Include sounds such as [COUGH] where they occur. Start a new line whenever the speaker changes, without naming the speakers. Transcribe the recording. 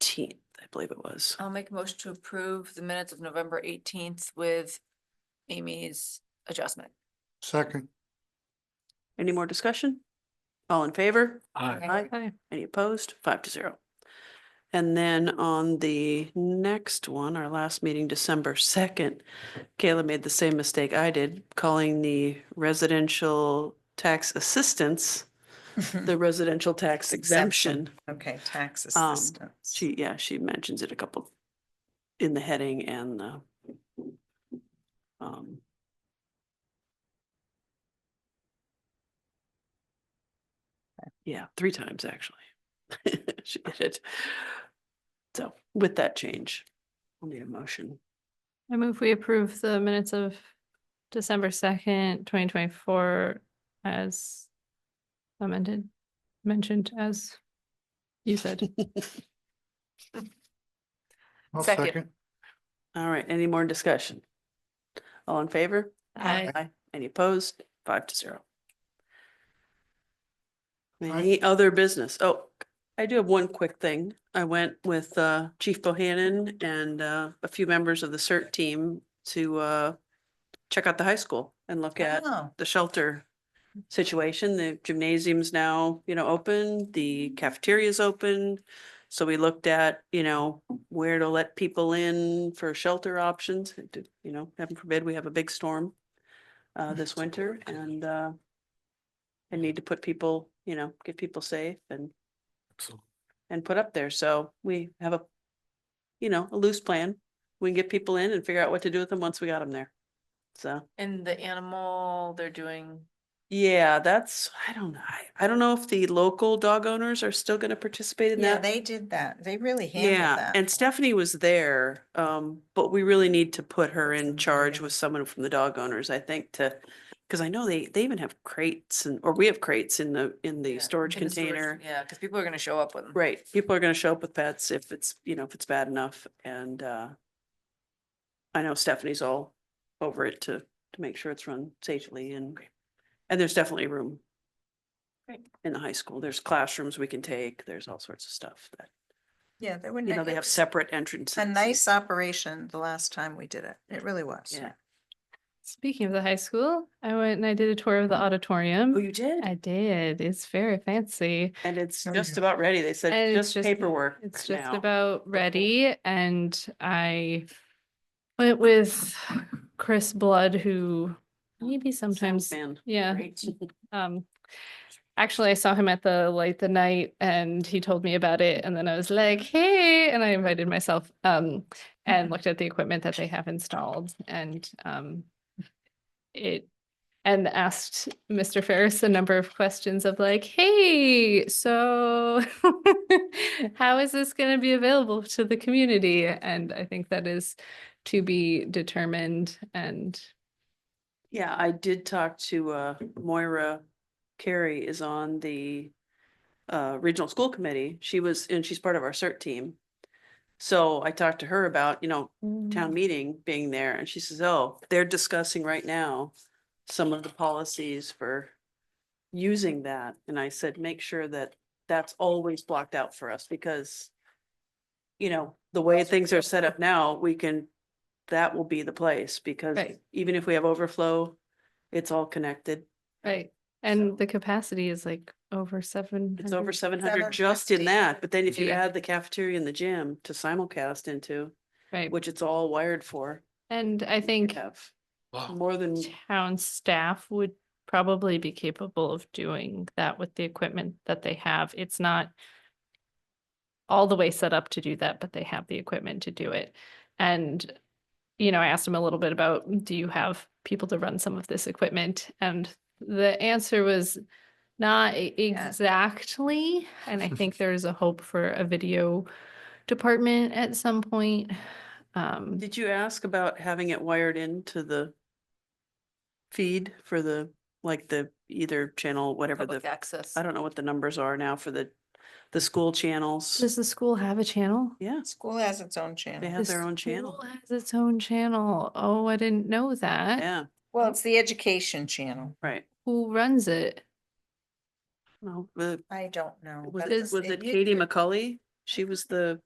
eighteenth, I believe it was.
I'll make a motion to approve the minutes of November eighteenth with Amy's adjustment.
Second.
Any more discussion? All in favor?
Aye.
Aye.
Any opposed? Five to zero. And then on the next one, our last meeting, December second, Kayla made the same mistake I did, calling the residential tax assistance, the residential tax exemption.
Exemption. [LAUGHS] Okay, tax
Um,
assistance.
She, yeah, she mentions it a couple in the heading and the um, yeah, three times actually. [LAUGHS] She did it. So with that change, we'll need a motion.
I move we approve the minutes of December second, twenty twenty-four as amended, mentioned as you said.
I'll
Second.
All right, any more discussion? All in favor?
I
Aye. Any opposed? Five to zero. Any other business? Oh, I do have one quick thing. I went with uh Chief Bohannon and uh a few members of the CERT team to uh check out the high school and look at
Oh,
the shelter situation. The gymnasium's now, you know, open, the cafeteria's open. So we looked at, you know, where to let people in for shelter options. It did- You know, heaven forbid, we have a big storm uh, this winter and uh, I need to put people, you know, get people safe and and put up there. So we have a, you know, a loose plan. We can get people in and figure out what to do with them once we got them there. So.
And the animal, they're doing,
Yeah, that's, I don't know. I, I don't know if the local dog owners are still gonna participate in
yeah,
that.
they did that. They really handled
Yeah,
that.
and Stephanie was there, um, but we really need to put her in charge with someone from the dog owners, I think, to, cause I know they, they even have crates and, or we have crates in the, in the
Yeah,
storage
in the storage-
container.
yeah, because people are gonna show up with them.
Right, people are gonna show up with pets if it's, you know, if it's bad enough and, uh, I know Stephanie's all over it to, to make sure it's run safely and, and there's definitely room.
Great.
In the high school, there's classrooms we can take, there's all sorts of stuff that,
Yeah, they wouldn't.
you know, they have separate
It's
entrances.
a
and-
nice operation the last time we did it. It really was.
Yeah.
Speaking of the high school, I went and I did a tour of the
Oh,
auditorium.
you did?
I did. It's very fancy.
And it's
Oh,
just
yeah.
about ready. They said
And it's
just
just-
paperwork
It's just
now.
about ready and I went with Chris Blood, who maybe sometimes,
Sound
yeah,
man, great.
Um, actually, I saw him at the light the night and he told me about it. And then I was like, hey, and I invited myself um, and looked at the equipment that they have installed and um, it and asked Mr. Ferris a number of questions of like, hey, so [LAUGHS] how is this going to be available to the community? And I think that is to be determined and
Yeah, I did talk to uh Moira Carey is on the uh Regional School Committee. She was, and she's part of our CERT team. So I talked to her about, you know,
Mm-hmm.
town meeting being there and she says, oh, they're discussing right now some of the policies for using that. And I said, make sure that that's always blocked out for us because you know, the way things are set up now, we can, that will be the place because
Right.
even if we have overflow, it's all connected.
Right,
So-
and the capacity is like over Mm-hmm. seven.
It's over seven hundred just in
750.
that, but then if you
Yeah.
add the cafeteria and the gym to simulcast into,
Right,
which it's all wired for,
and I
we
think
have more than
town staff would probably be capable of doing that with the equipment that they have. It's not all the way set up to do that, but they have the equipment to do it. And, you know, I asked him a little bit about, do you have people to run some of this equipment? And the answer was not e- exactly. And I think there is a hope for a video department at some point. Um,
Did you ask about having it wired into the feed for the, like the either channel, whatever
Public
the,
access.
I don't know what the numbers are now for the, the school channels.
does the school have a channel?
Yeah,
School has its own
they
channel.
have
The
their own
school
channel.
Has its own channel. Oh, I didn't know that.
Yeah,
Well, it's the education channel.
right.
Who runs it?
No, the,
I don't know.
was
but
it, was
it
it
u-
Katie McCully? She was the